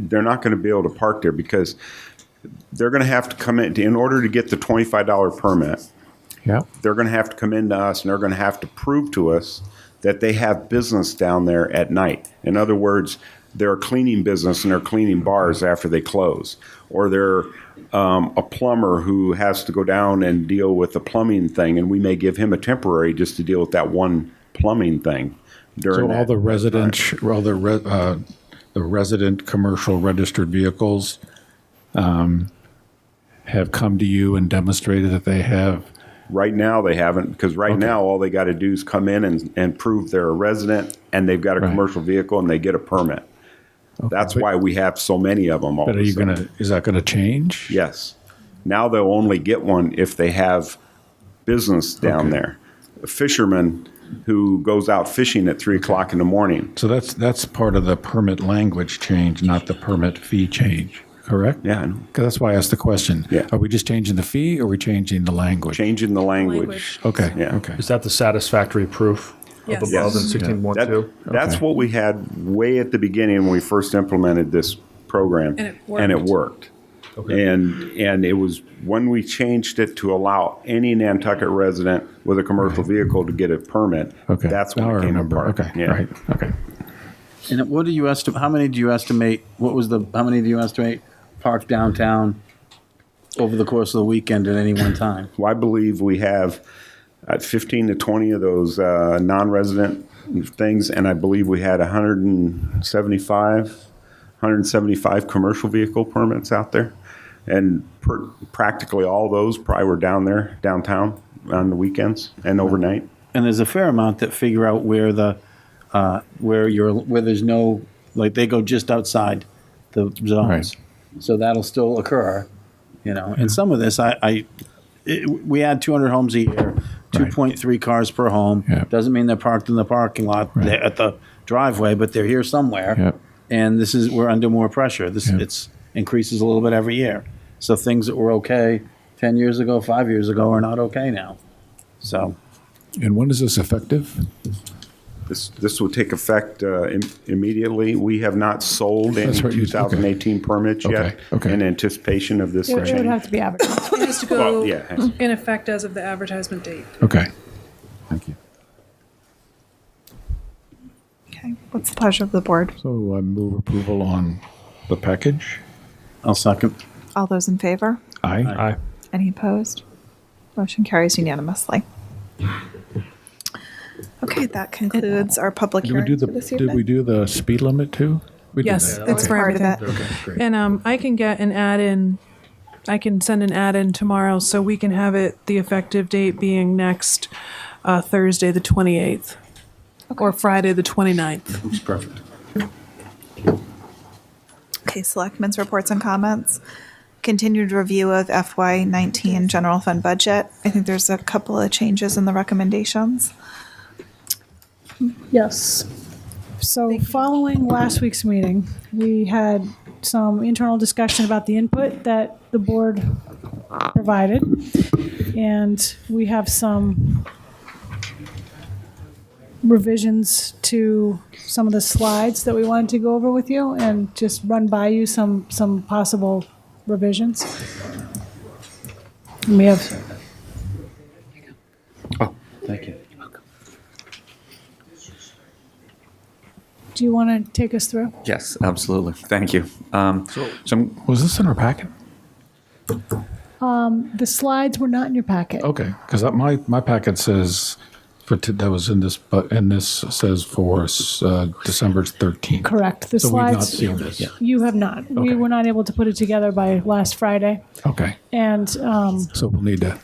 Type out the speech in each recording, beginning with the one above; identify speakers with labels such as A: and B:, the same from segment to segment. A: they're not going to be able to park there because they're going to have to come in, in order to get the $25 permit,
B: Yeah.
A: they're going to have to come into us and they're going to have to prove to us that they have business down there at night. In other words, they're a cleaning business and they're cleaning bars after they close, or they're um, a plumber who has to go down and deal with the plumbing thing, and we may give him a temporary just to deal with that one plumbing thing. During
B: So all
A: that.
B: the resident, all the, re- uh, the resident commercial registered vehicles um, have come to you and demonstrated that they have,
A: Right now, they haven't, because right now, all they got to do is come in and, and prove they're a resident and they've got a
B: Right.
A: commercial vehicle and they get a permit. That's why we have so many of them all
B: but
A: of a
B: are you
A: sudden.
B: going to, is that going to change?
A: Yes. Now they'll only get one if they have business down there. A fisherman who goes out fishing at three o'clock in the morning.
B: So that's, that's part of the permit language change, not the permit fee change, correct?
A: Yeah, I know.
B: 'Cause that's why I asked the question.
A: Yeah.
B: Are we just changing the fee or are we changing the language?
A: changing the language.
C: Language.
B: Okay,
A: Yeah.
B: okay.
D: Is that the satisfactory proof
C: Yes.
D: of above in
C: Yes.
D: sixteen one
A: That-
D: two?
A: That's what we had way at the beginning when we first implemented this program.
C: And it
A: And it
C: worked.
A: worked. And, and it was when we changed it to allow any Nantucket resident with a commercial vehicle to get a permit.
B: Okay.
A: That's
B: Now
A: when
B: I
A: it came
B: remember.
A: apart.
B: Okay,
A: Yeah.
B: right, okay.
E: And what do you estimate? How many do you estimate? What was the? How many do you estimate parked downtown over the course of the weekend at any one time?
A: Well, I believe we have uh, 15 to 20 of those uh, non-resident things, and I believe we had 175, 175 commercial vehicle permits out there. And per- practically all those probably were down there, downtown, on the weekends and overnight.
E: And there's a fair amount that figure out where the uh, where you're where there's no like they go just outside the zones, so that'll still occur. You know, and some of this I, I it, we had 200 homes a year, 2.3 cars per home.
B: Yeah.
E: Doesn't mean they're parked in the parking lot
B: Right.
E: they're at the driveway, but they're here somewhere.
B: Yeah.
E: And this is we're under more pressure. This
B: Yeah.
E: it's increases a little bit every year. So things that were okay 10 years ago, five years ago are not okay now. So
B: And when is this effective?
A: This, this will take effect uh, im- immediately. We have not sold any
B: That's right, you- okay.
A: 2018 permits yet
B: Okay, okay.
A: in anticipation of this
F: It would- it would have
A: change.
F: to be advertised.
C: It has to
A: Well,
C: go
A: yeah.
C: in effect as of the advertisement date.
B: Okay. Thank you.
F: Okay, what's the pleasure of the board?
B: So I move approval on the package.
E: I'll second.
F: All those in favor?
B: Aye.
D: Aye.
F: Any opposed? Motion carries unanimously. Okay, that concludes our public
B: Did we
F: hearing
B: do
F: for
B: the,
F: this
B: did we
F: evening.
B: do the speed limit too? We did
C: Yes,
B: that.
C: that's
F: That's
C: for
F: part of
C: everything.
F: it.
C: And um, I can get an add in. I can send an add in tomorrow so we can have it the effective date being next uh, Thursday, the 28th, or Friday, the 29th.
E: It's perfect.
F: Okay, selectmen's reports and comments. Continued review of FY nineteen general fund budget. I think there's a couple of changes in the recommendations.
G: Yes. So following last week's meeting, we had some internal discussion about the input that the board provided. And we have some revisions to some of the slides that we wanted to go over with you and just run by you some, some possible revisions. And we have
E: Thank you.
G: Do you want to take us through?
H: Yes, absolutely. Thank you. Um, so, I'm-
B: Was this in our packet?
G: The slides were not in your packet.
B: Okay, because my, my packet says for, t- that was in this, but, and this says for uh, December 13th.
G: Correct. The
B: So we've not
G: slides,
B: seen this.
G: you have not. We
B: Okay.
G: were not able to put it together by last Friday.
B: Okay,
G: And, um,
B: so we'll need to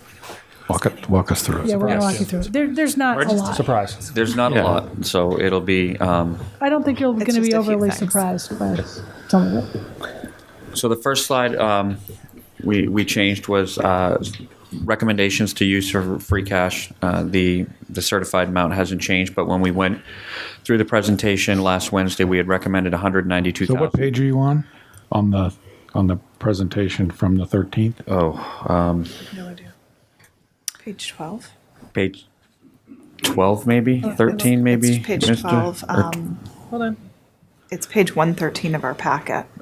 B: walk, it- walk us through
G: yeah,
B: it.
G: we're going to walk you through it. There, there's not a lot.
D: Surprise.
H: there's not
B: Yeah.
H: a lot, so it'll be. Um,
G: I don't think you're going to
F: just
G: be
F: a few
G: overly
F: things.
G: surprised by some of it.
H: so the first slide um, we we changed was uh, recommendations to use for free cash. Uh, the the certified amount hasn't changed, but when we went through the presentation last Wednesday, we had recommended 192,000.
B: So what page are you on? On the, on the presentation from the 13th?
H: Oh,
C: No idea.
F: Page twelve.
H: page 12 maybe 13
F: Oh, It's
H: maybe
F: Page
H: Mr.
F: twelve,
H: Or
F: um,
C: Hold on.
F: it's page one thirteen of our packet.